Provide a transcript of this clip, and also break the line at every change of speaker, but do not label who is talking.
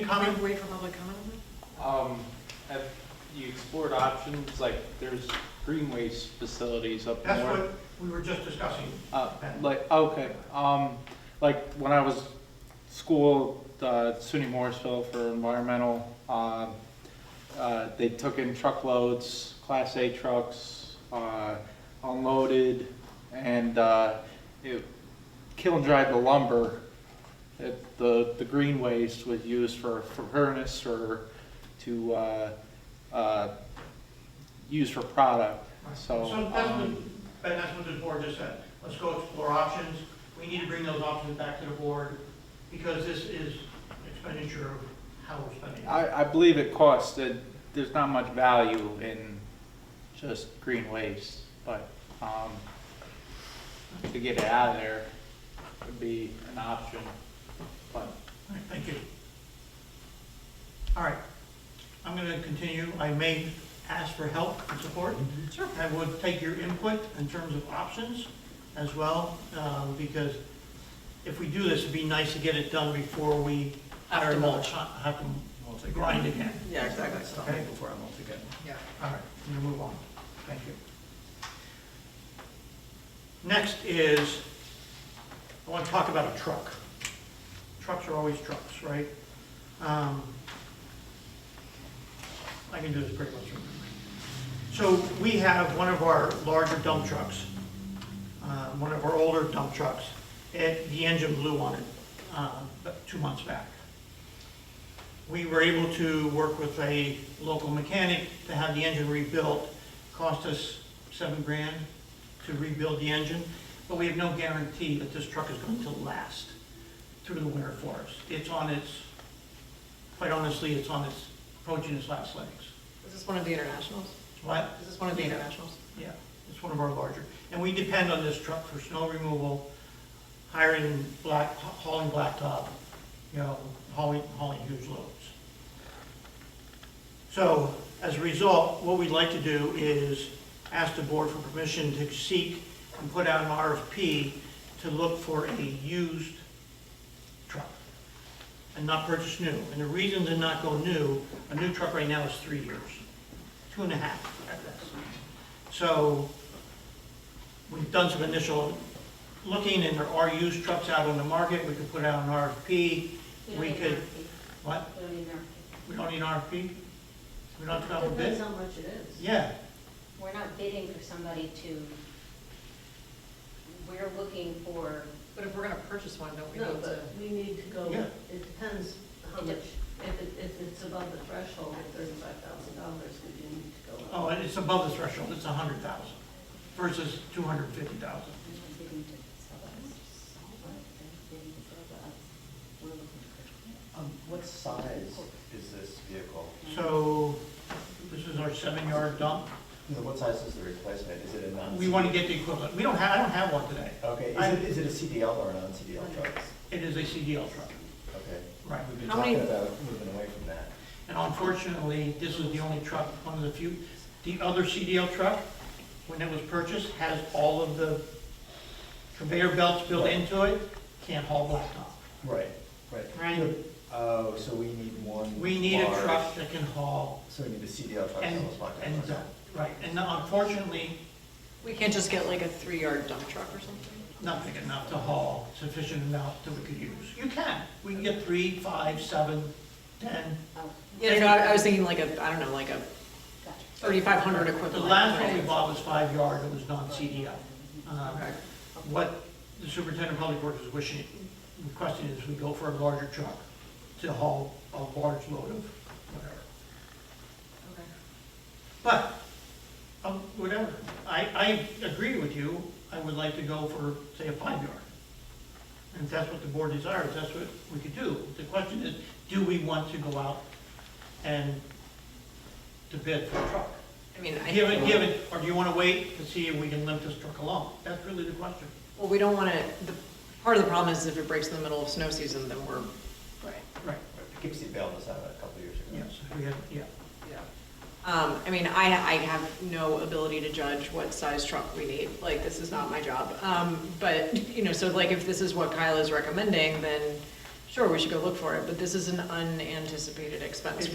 How many-
wait for public comment on that?
Um, have you explored options, like there's greenways facilities up
That's
north?
what we were just discussing.
Uh, like, okay, um, like when I was school, uh, SUNY Morrisville for environmental, uh, uh, they took in truckloads, class A trucks, uh, unloaded and, uh, it kiln dried the lumber. It, the, the green waste was used for, for furnace or to, uh, uh, use for product, so.
So that's what,
um,
Ben, that's what the board just said. Let's go explore options. We need to bring those options back to the board because this is expenditure of how we're spending. it.
I, I believe it costs, that there's not much value in just green waste, but, um, to get it out of there would be an option, but.
All right, Thank you. All right, I'm going to continue. I may ask for help and support.
Sure.
I would take your input in terms of options as well, um, because if we do this, it'd be nice to get it done before we hire mulch, have to grind again.
Yeah, exactly.
Okay, before I mulch again.
Yeah.
All right, I'm gonna move on. Thank you. Next is, I want to talk about a truck. Trucks are always trucks, right? Um, I can do this pretty much. from memory. So we have one of our larger dump trucks, uh, one of our older dump trucks. It, the engine blew on it uh, about two months back. We were able to work with a local mechanic to have the engine rebuilt. Cost us seven grand to rebuild the engine, but we have no guarantee that this truck is going to last through the winter for us. It's on its, quite honestly, it's on its, approaching its last legs.
Is this one of the internationals?
What?
Is this one of the internationals?
Yeah, it's one of our larger. And we depend on this truck for snow removal, hiring black, hauling blacktop, you know, hauling, hauling huge loads. So as a result, what we'd like to do is ask the board for permission to seek and put out an RFP to look for a used truck and not purchase new. And the reason to not go new, a new truck right now is three years, two and a half at best. So we've done some initial looking and there are used trucks out on the market. We could put out an RFP. We could, what?
We don't need an
We don't need an RFP? We don't have to go out for
RFP. Depends
bid?
how much it is.
Yeah,
We're not bidding for somebody to, we're looking for,
But if we're gonna purchase one, don't we
No,
need to?
but we need to go,
Yeah.
it depends how much, if it, if it's above the threshold of thirty-five thousand dollars, we do need to go up.
oh, and it's above the threshold, it's a hundred thousand versus two hundred fifty thousand.
we're not bidding to sell us. We're bidding to sell us. We're looking for-
Um, what size is this vehicle?
So this is our seven-yard dump.
You know, what size is the replacement? Is it a non?
We want to get the equivalent. We don't have, I don't have one today.
Okay,
I-
is it, is it a CDL or a non-CDL truck?
It is a CDL truck.
Okay.
Right.
We've been
How many-
talking about moving away from that.
And unfortunately, this is the only truck, one of the few, the other CDL truck, when it was purchased, has all of the conveyor belts built into it, can't haul blacktop.
Right, right.
Right.
Oh, so we need one.
We need a
large-
truck that can haul
So we need a CDL truck. that
and,
was locked up.
and, dump. right, and unfortunately,
We can't just get like a three-yard dump truck or something?
not big enough to haul sufficient amount that we could use. You can, we can get three, five, seven, ten.
Oh,
Yeah, no, I I was thinking like a, I don't know, like a
gotcha.
thirty-five hundred equivalent.
The last one
right?
we bought was five yard, it was non-CDL. Um,
Okay.
what the superintendent of public works is wishing, requesting is we go for a larger truck to haul a large load of whatever.
Okay.
But, um, whatever, I, I agree with you, I would like to go for, say, a five yard. And if that's what the board desires, that's what we could do. The question is, do we want to go out and to bid for a truck?
I mean, I.
Given, given, or do you want to wait to see if we can limp this truck along? That's really the question.
Well, we don't wanna, the, part of the problem is if it breaks in the middle of snow season, then we're. Right.
Right,
Poughkeepsie bailed us out a couple of years ago.
yes, we had, yeah.
Yeah. Um, I mean, I, I have no ability to judge what size truck we need, like, this is not my job. Um, but, you know, so like, if this is what Kyle is recommending, then sure, we should go look for it, but this is an unanticipated expense